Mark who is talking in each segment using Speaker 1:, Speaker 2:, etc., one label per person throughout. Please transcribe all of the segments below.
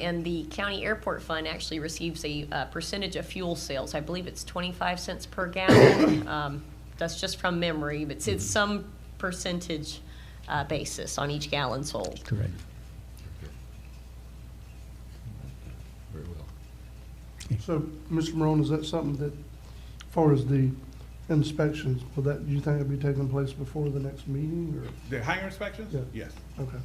Speaker 1: And the county airport fund actually receives a uh, percentage of fuel sales. I believe it's 25 cents per gallon. Um, That's just from memory, but it's- it's some percentage uh, basis on each gallon sold.
Speaker 2: Correct.
Speaker 3: Very well.
Speaker 4: So, Mr. Morone, is that something that, as far as the inspections, will that, do you think it'll be taking place before the next meeting,
Speaker 5: The hangar inspections?
Speaker 4: Yeah.
Speaker 5: Yes.
Speaker 4: or, okay?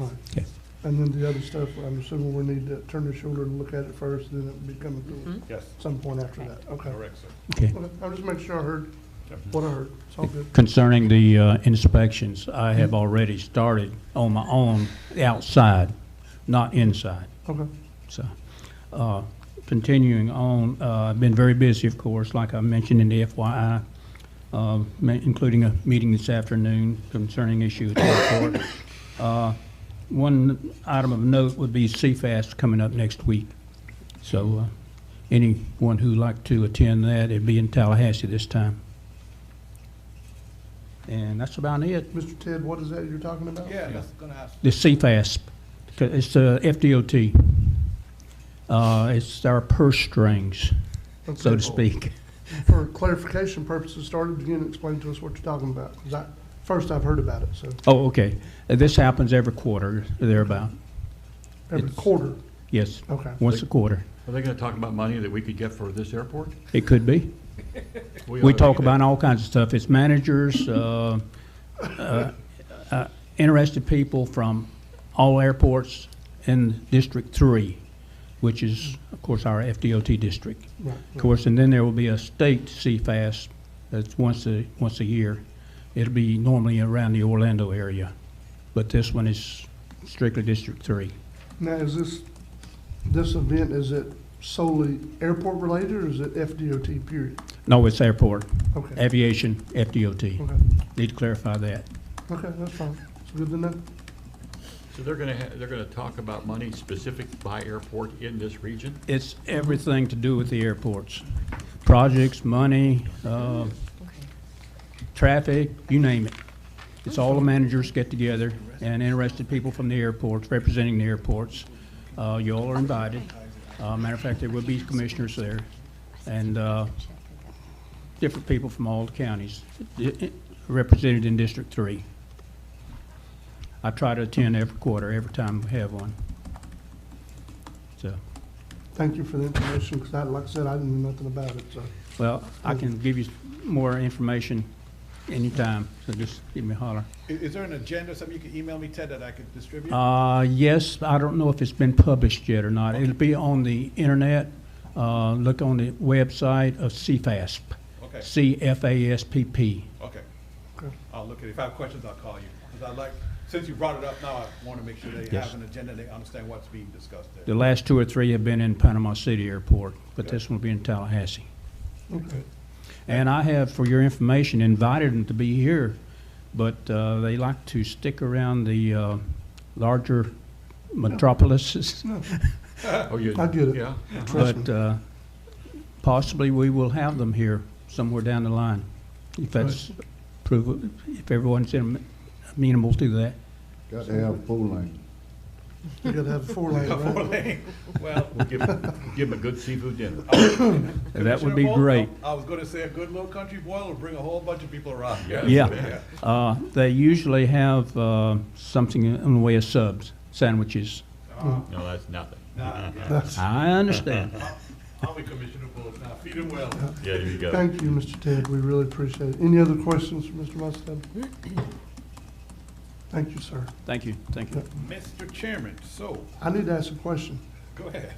Speaker 4: All right,
Speaker 2: Okay.
Speaker 4: and then the other stuff, I'm assuming we need to turn the shoulder and look at it first, then it'll be coming through
Speaker 5: Yes,
Speaker 4: at some point after that, okay?
Speaker 5: correct, sir.
Speaker 2: Okay.
Speaker 4: Okay, I'll just make sure I heard what I heard, it's all good.
Speaker 2: Concerning the uh, inspections, I have already started on my own outside, not inside.
Speaker 4: Okay,
Speaker 2: So, uh, continuing on, uh, I've been very busy, of course, like I mentioned in the FYI, uh, ma- including a meeting this afternoon concerning issues at the airport. Uh, One item of note would be CFAS coming up next week. So uh, anyone who'd like to attend that, it'd be in Tallahassee this time. And that's about it.
Speaker 4: Mr. Ted, what is that you're talking about?
Speaker 5: Yeah, that's gonna happen.
Speaker 2: The CFAS, 'cause it's the FDOT. Uh, It's our purse strings, so
Speaker 4: Okay.
Speaker 2: to speak.
Speaker 4: For clarification purposes, started again, explain to us what you're talking about, 'cause I, first I've heard about it, so,
Speaker 2: Oh, okay. Uh, This happens every quarter, thereabout.
Speaker 4: every
Speaker 2: It's-
Speaker 4: quarter,
Speaker 2: Yes,
Speaker 4: okay.
Speaker 2: once a quarter.
Speaker 3: Are they gonna talk about money that we could get for this airport?
Speaker 2: It could be. We
Speaker 3: ought to
Speaker 2: talk
Speaker 3: get
Speaker 2: about
Speaker 3: that.
Speaker 2: all kinds of stuff. It's managers, uh, uh, uh, interested people from all airports in District Three, which is, of course, our FDOT district.
Speaker 4: Right,
Speaker 2: Of
Speaker 4: right.
Speaker 2: course, and then there will be a state CFAS that's once a, once a year. It'll be normally around the Orlando area, but this one is strictly District Three.
Speaker 4: Now, is this, this event, is it solely airport related or is it FDOT period?
Speaker 2: No, it's airport,
Speaker 4: Okay, Hmm.
Speaker 2: aviation, FDOT.
Speaker 4: okay,
Speaker 2: Need to clarify that.
Speaker 4: okay, that's fine. It's good to know.
Speaker 3: So they're gonna, ha- they're gonna talk about money specific by airport in this region?
Speaker 2: It's everything to do with the airports. Projects, money, uh, traffic, you name it. It's all the managers get together and interested people from the airports, representing the airports. Uh, you all are invited. Uh, matter of fact, there will be commissioners there and, uh, different people from all the counties i- i- represented in District Three. I try to attend every quarter, every time we have one. So.
Speaker 4: Thank you for the information, because I, like I said, I didn't know nothing about it, so.
Speaker 2: Well, I can give you more information anytime, so just give me a holler.
Speaker 5: I- Is, there an agenda, or something you can email me, Ted, that I could distribute?
Speaker 2: Uh, yes, I don't know if it's been published yet or not. It'll be on the internet. Uh, look on the website of CFASP.
Speaker 5: Okay.
Speaker 2: C-F-A-S-P-P.
Speaker 5: Okay,
Speaker 4: okay.
Speaker 5: I'll look at it. If I have questions, I'll call you. Because I like, since you brought it up now, I want to make sure they
Speaker 2: Yes.
Speaker 5: have an agenda, they understand what's being discussed
Speaker 2: The
Speaker 5: there.
Speaker 2: last two or three have been in Panama City Airport, but this one will be in Tallahassee.
Speaker 4: Okay.
Speaker 2: And I have, for your information, invited them to be here, but uh, they like to stick around the uh, larger metropolises.
Speaker 3: Oh, you,
Speaker 4: Uh, I get it.
Speaker 3: yeah?
Speaker 4: Trust
Speaker 2: But uh, possibly we will have them here somewhere down the line, if that's, prov- if everyone's am- amenable to that.
Speaker 6: Got to have full lane.
Speaker 4: You gotta have four lane,
Speaker 5: Four
Speaker 4: right?
Speaker 5: lane. Well,
Speaker 3: We'll give, give them a good seafood dinner.
Speaker 2: That would be
Speaker 5: Commissioner Boyle,
Speaker 2: great.
Speaker 5: I I was going to say a good little country boil will bring a whole bunch of people around.
Speaker 2: Yeah. Uh, They usually have uh, something in the way of subs, sandwiches.
Speaker 5: Uh,
Speaker 3: No, that's nothing.
Speaker 5: Nah, yeah.
Speaker 4: That's-
Speaker 2: I understand.
Speaker 5: I'll be Commissioner Boyle now. Feed him well.
Speaker 3: Yeah, there you go.
Speaker 4: Thank you, Mr. Ted, we really appreciate it. Any other questions for Mr. Mustad? Thank you, sir.
Speaker 2: Thank you, thank you.
Speaker 5: Mr. Chairman, so,
Speaker 4: I need to ask a question.
Speaker 5: go ahead.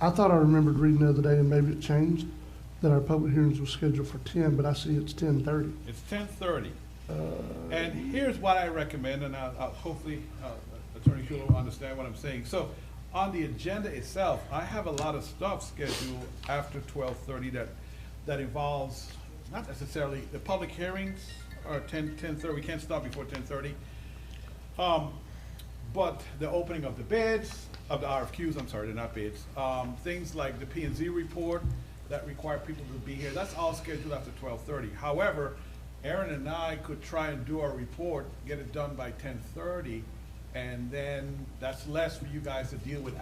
Speaker 4: I thought I remembered reading the other day, and maybe it changed, that our public hearings were scheduled for ten, but I see it's ten thirty.
Speaker 5: It's ten thirty. And here's what I recommend, and I'll, I'll hopefully, uh, Attorney Schuler will understand what I'm saying. So, on the agenda itself, I have a lot of stuff scheduled after twelve thirty that, that involves, not necessarily, the public hearings are ten, ten thirty, we can't stop before ten thirty. Um, but the opening of the bids, of the RFQs, I'm sorry, they're not bids, um, things like the P and Z report that require people to be here, that's all scheduled after twelve thirty. However, Aaron and I could try and do our report, get it done by ten thirty, And then that's less for you guys to deal with